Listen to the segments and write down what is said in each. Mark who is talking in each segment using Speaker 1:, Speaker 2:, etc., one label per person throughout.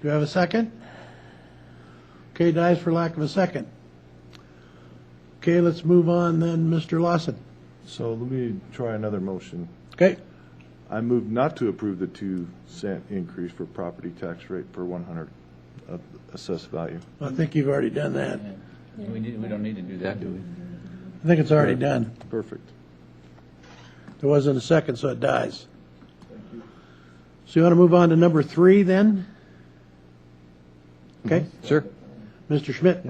Speaker 1: Do you have a second? Okay, dies for lack of a second. Okay, let's move on then, Mr. Lawson.
Speaker 2: So let me try another motion.
Speaker 1: Okay,
Speaker 2: I move not to approve the two cent increase for property tax rate per one hundred of assessed value.
Speaker 1: I think you've already done that.
Speaker 3: We need, we don't need to do that, do we?
Speaker 1: I think it's already done.
Speaker 2: Perfect.
Speaker 1: There wasn't a second, so it dies. So you want to move on to number three then?
Speaker 3: Mm-hmm.
Speaker 1: Okay,
Speaker 3: Sure.
Speaker 1: Mr. Schmidt,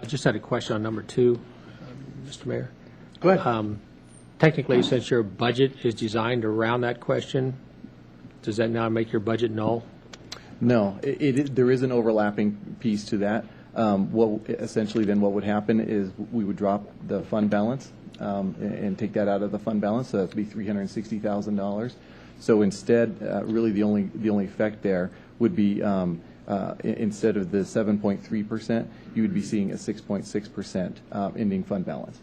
Speaker 4: I just had a question on number two, Mr. Mayor.
Speaker 1: go ahead.
Speaker 4: Technically, since your budget is designed around that question, does that now make your budget null?
Speaker 5: No, it, it, is- there is an overlapping piece to that. Um, what, essentially then what would happen is we would drop the fund balance, um, and, and take that out of the fund balance, so that'd be three hundred and sixty thousand dollars. So instead, uh, really the only, the only effect there would be, um, uh, i- instead of the seven point three percent, you would be seeing a six point six percent, uh, ending fund balance.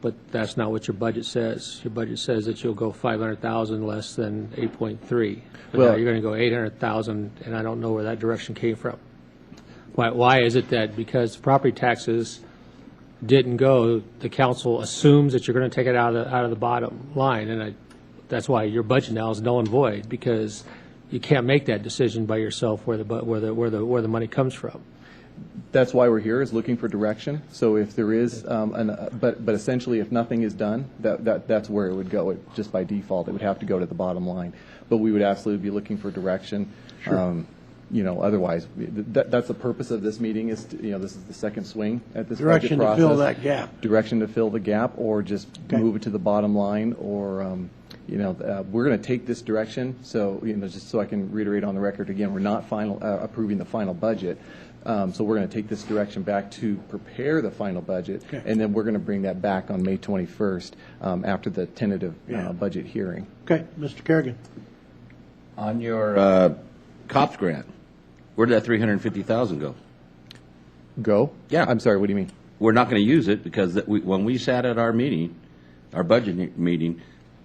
Speaker 4: But that's not what your budget says. Your budget says that you'll go 500,000 less than 8.3. But now
Speaker 5: Well-
Speaker 4: you're going to go 800,000, and I don't know where that direction came from. Why, why is it that because property taxes didn't go, the council assumes that you're going to take it out of, the out of the bottom line? And I, that's why your budget now is null and void, because you can't make that decision by yourself where the, bu- where the, where the, where the money comes from.
Speaker 5: that's why we're here, is looking for direction. So if there is, um, an, uh, but, but essentially, if nothing is done, that, that, that's where it would go. It, just by default, it would have to go to the bottom line. But we would absolutely be looking for direction. Um, you know, otherwise, we- th- that, that's the purpose of this meeting is, to, you know, this is the second swing at this budget
Speaker 1: Direction to fill
Speaker 5: process.
Speaker 1: that gap.
Speaker 5: Direction to fill the gap, or just move it to the bottom line, or, um, you know, uh, we're going to take this direction, so, you know, just so I can reiterate on the record again, we're not final, uh, approving the final budget. Um, So we're going to take this direction back to prepare the final budget, and then we're going to bring that back on May 21st um, after the tentative uh,
Speaker 1: Yeah.
Speaker 5: budget hearing.
Speaker 1: Okay, Mr. Kerrigan.
Speaker 3: On your uh, COPS grant, where did that 350,000 go?
Speaker 5: Go?
Speaker 3: Yeah.
Speaker 5: I'm sorry, what do you mean?
Speaker 3: We're not going to use it because that we- when we sat at our meeting, our budget ne- meeting,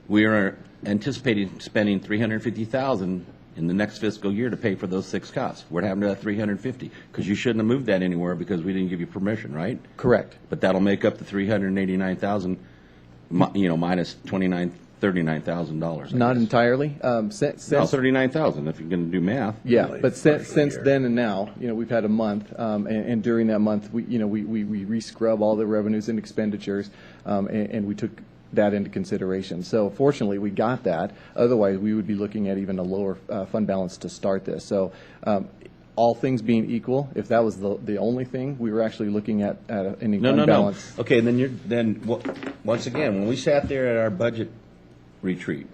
Speaker 3: we were anticipating spending 350,000 in the next fiscal year to pay for those six cops. We're having that 350, because you shouldn't have moved that anywhere because we didn't give you permission, right?
Speaker 5: Correct.
Speaker 3: But that'll make up the 389,000, mi- you know, minus 29, $39,000. I
Speaker 5: Not
Speaker 3: guess.
Speaker 5: entirely. Um, sin-
Speaker 3: No,
Speaker 5: Since
Speaker 3: thirty-nine thousand, if you're gonna do math.
Speaker 5: Yeah, but since, since then and now, you know, we've had a month, um, and, and during that month, we, you know, we, we, we re-scrub all the revenues and expenditures, um, and, and we took that into consideration. So fortunately, we got that. Otherwise, we would be looking at even a lower, uh, fund balance to start this. So, um, all things being equal, if that was the, the only thing, we were actually looking at, at a- an
Speaker 3: No, no,
Speaker 5: fund
Speaker 3: no.
Speaker 5: balance.
Speaker 3: Okay, then you're, then, wha- once again, when we sat there at our budget retreat,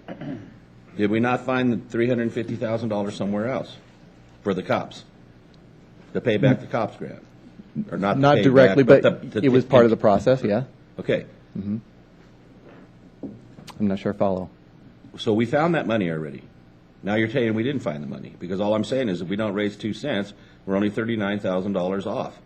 Speaker 3: did we not find the three hundred and fifty thousand dollars somewhere else for the cops? To pay back the cops grant? Or not to
Speaker 5: Not
Speaker 3: pay
Speaker 5: directly,
Speaker 3: back,
Speaker 5: but
Speaker 3: the- the-
Speaker 5: it was part of the process, yeah.
Speaker 3: Okay,
Speaker 5: I'm not sure I follow.
Speaker 3: so we found that money already. Now you're saying we didn't find the money, because all I'm saying is if we don't raise two cents, we're only thirty-nine thousand dollars off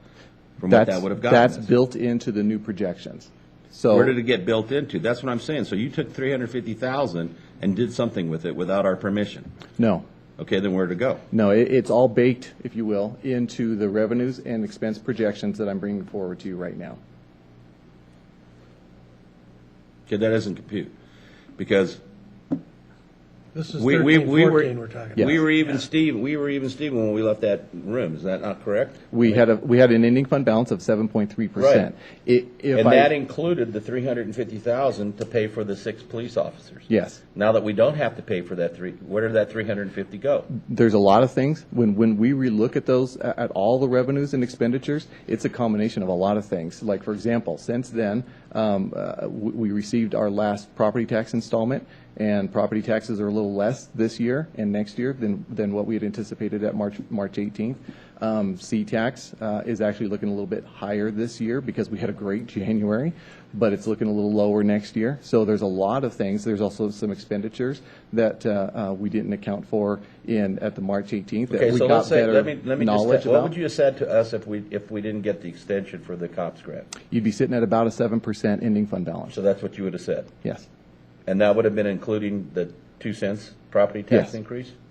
Speaker 3: from what
Speaker 5: That's
Speaker 3: that would have gotten us.
Speaker 5: That's built into the new projections. So.
Speaker 3: Where did it get built into? That's what I'm saying. So you took three hundred fifty thousand and did something with it without our permission.
Speaker 5: No.
Speaker 3: Okay, then where'd it go?
Speaker 5: No, it, it's all baked, if you will, into the revenues and expense projections that I'm bringing forward to you right now.
Speaker 3: Okay, that doesn't compute. Because
Speaker 1: This is
Speaker 3: we, we,
Speaker 1: thirteen,
Speaker 3: we were,
Speaker 1: fourteen we're talking about.
Speaker 3: we were even Steven, we were even Steven when we left that room. Is that not correct?
Speaker 5: We had a, we had an ending fund balance of seven point three
Speaker 3: Right.
Speaker 5: percent. If
Speaker 3: And that
Speaker 5: I,
Speaker 3: included the three hundred and fifty thousand to pay for the six police officers.
Speaker 5: yes,
Speaker 3: Now that we don't have to pay for that three, where did that three hundred and fifty go?
Speaker 5: there's a lot of things. When, when we relook at those, a- at all the revenues and expenditures, it's a combination of a lot of things. Like, for example, since then, um, uh, we, we received our last property tax installment, and property taxes are a little less this year and next year than, than what we had anticipated at March, March eighteenth. Um, C-Tax, uh, is actually looking a little bit higher this year because we had a great January, but it's looking a little lower next year. So there's a lot of things. There's also some expenditures that, uh, uh, we didn't account for in, at the March 18th that
Speaker 3: Okay,
Speaker 5: we
Speaker 3: so let's
Speaker 5: got
Speaker 3: say,
Speaker 5: better
Speaker 3: let me, let me just,
Speaker 5: knowledge
Speaker 3: what would
Speaker 5: about.
Speaker 3: you have said to us if we, if we didn't get the extension for the cops grant?
Speaker 5: You'd be sitting at about a 7% ending fund balance.
Speaker 3: So that's what you would have said?
Speaker 5: Yes.
Speaker 3: And that would have been including the two cents property tax
Speaker 5: Yes.
Speaker 3: increase?